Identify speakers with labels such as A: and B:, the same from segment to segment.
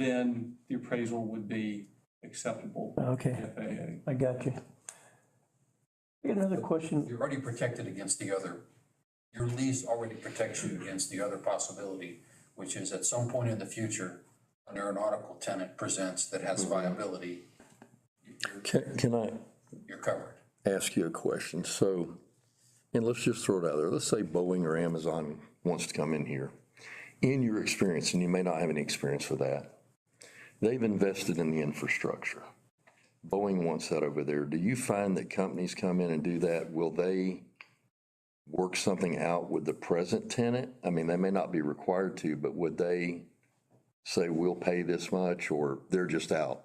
A: then the appraisal would be acceptable
B: Okay,
A: to FAA.
B: I got you. I got another question.
C: You're already protected against the other, your lease already protects you against the other possibility, which is at some point in the future, an aeronautical tenant presents that has viability,
D: Can, can I
C: you're covered.
D: ask you a question? So, and let's just throw it out there. Let's say Boeing or Amazon wants to come in here. In your experience, and you may not have any experience with that, they've invested in the infrastructure. Boeing wants that over there. Do you find that companies come in and do that? Will they work something out with the present tenant? I mean, they may not be required to, but would they say, we'll pay this much, or they're just out?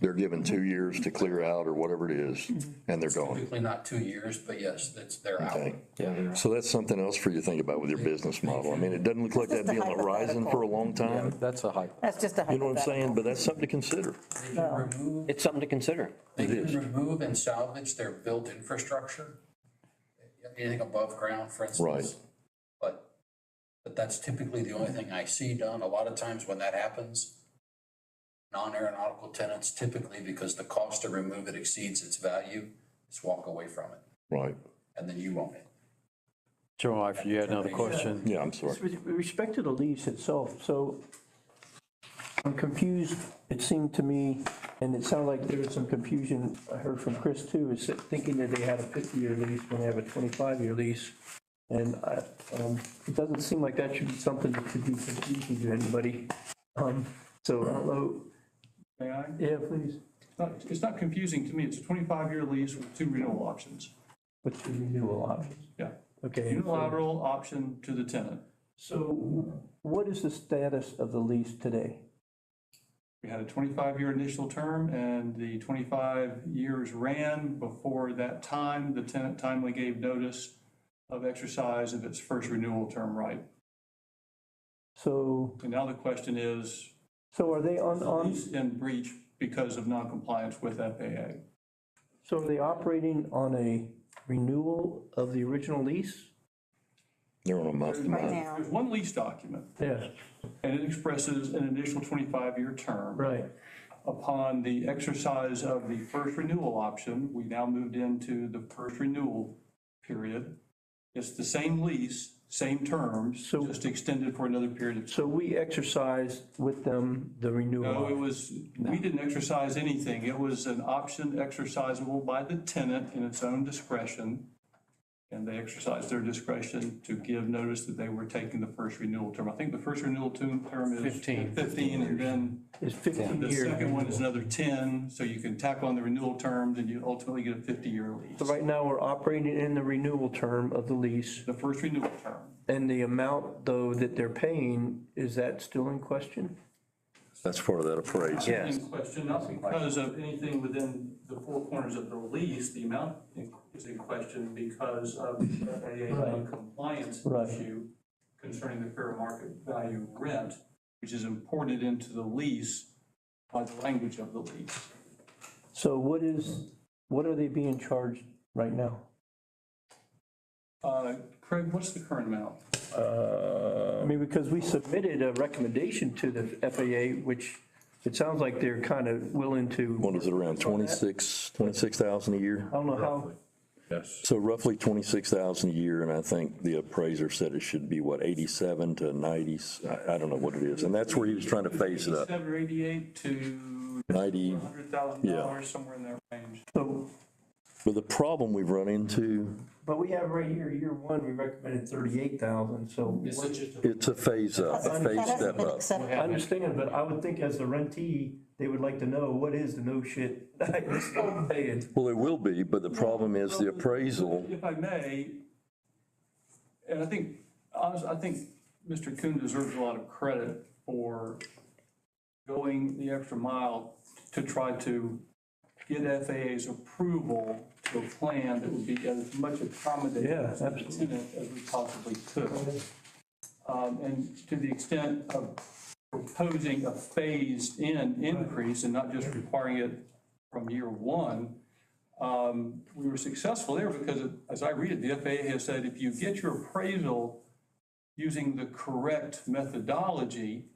D: They're given two years to clear out or whatever it is, and they're gone.
C: Typically not two years, but yes, that's, they're out.
D: Okay. So that's something else for you to think about with your business model. I mean, it doesn't look like that'd be on the horizon for a long time.
E: That's a high.
F: That's just a
D: You know what I'm
F: hypothetical.
D: saying? But that's something to consider.
C: They can remove,
E: It's something to consider.
C: they can remove and salvage their built infrastructure, anything above ground, for instance.
D: Right.
C: But, but that's typically the only thing I see done. A lot of times when that happens, non-aeronautical tenants typically, because the cost to remove it exceeds its value, just walk away from it,
D: Right.
C: and then you own it.
G: Joe, if you had another question?
D: Yeah, I'm sorry.
B: It's With respect to the lease itself, so I'm confused. It seemed to me, and it sounded like there was some confusion I heard from Chris too, is that thinking that they had a 50-year lease when they have a 25-year lease. And I, um, it doesn't seem like that should be something that could be confusing to anybody. Um, So I don't know,
A: May I?
B: yeah, please.
A: It's not- It's not confusing to me. It's a 25-year lease with two renewal options.
B: What's the renewal options?
A: Yeah.
B: Okay.
A: Unilateral option to the tenant.
B: So what is the status of the lease today?
A: We had a 25-year initial term, and the 25 years ran. Before that time, the tenant timely gave notice of exercise of its first renewal term right.
B: So,
A: And now the question is,
B: so are they on, on,
A: is in breach because of noncompliance with FAA?
B: so are they operating on a renewal of the original lease?
D: They're on a month to
F: Right
D: month.
F: now,
A: There's one lease document,
B: Yeah,
A: and it expresses an initial 25-year term.
B: right.
A: Upon the exercise of the first renewal option, we now moved into the first renewal period. It's the same lease, same terms,
B: So-
A: just extended for another period of time.
B: So we exercised with them the
A: No, it
B: renewal.
A: was, we didn't exercise anything. It was an option exercisable by the tenant in its own discretion. And they exercised their discretion to give notice that they were taking the first renewal term. I think the first renewal term term is.
G: 15.
A: Fifteen, and then
B: It's 15
A: the
B: years.
A: second one is another 10, so you can tack on the renewal terms and you ultimately get a 50-year
B: So
A: lease.
B: right now, we're operating in the renewal term of the lease,
A: The first renewal term.
B: and the amount, though, that they're paying, is that still in question?
D: That's part of that appraisal.
E: Yes.
A: In question, not because of anything within the four corners of the lease, the amount in- is in question because of a compliance
B: Right.
A: issue concerning the fair market value rent, which is imported into the lease by the language of the lease.
B: So what is, what are they being charged right now?
A: Uh, Craig, what's the current amount?
B: I mean, because we submitted a recommendation to the FAA, which it sounds like they're kind of willing to,
D: What is it, around 26, 26,000 a year?
B: I don't know how,
D: So roughly 26,000 a year, and I think the appraiser said it should be, what, 87 to 90? I, I don't know what it is. And that's where he was trying to phase it up.
A: 87 or 88 to
D: 90, Yeah.
A: $100,000, somewhere in that range.
B: so,
D: But the problem we've run into,
B: but we have right here, year one, we recommended 38,000, so.
D: it's a phase up, a phase
F: Hasn't
D: step
F: been
D: up.
F: accepted.
B: I understand, but I would think as the rentee, they would like to know what is the no shit that I'm paying.
D: Well, there will be, but the problem is the appraisal,
A: If I may, and I think, honestly, I think Mr. Kuhn deserves a lot of credit for going the extra mile to try to get FAA's approval to a plan that would be as much accommodating
B: Yeah,
A: to the
B: absolutely.
A: tenant as we possibly could. Um, And to the extent of proposing a phased-in increase and not just requiring it from year one, um, we were successful there because, it- as I read it, the FAA has said if you get your appraisal using the correct methodology,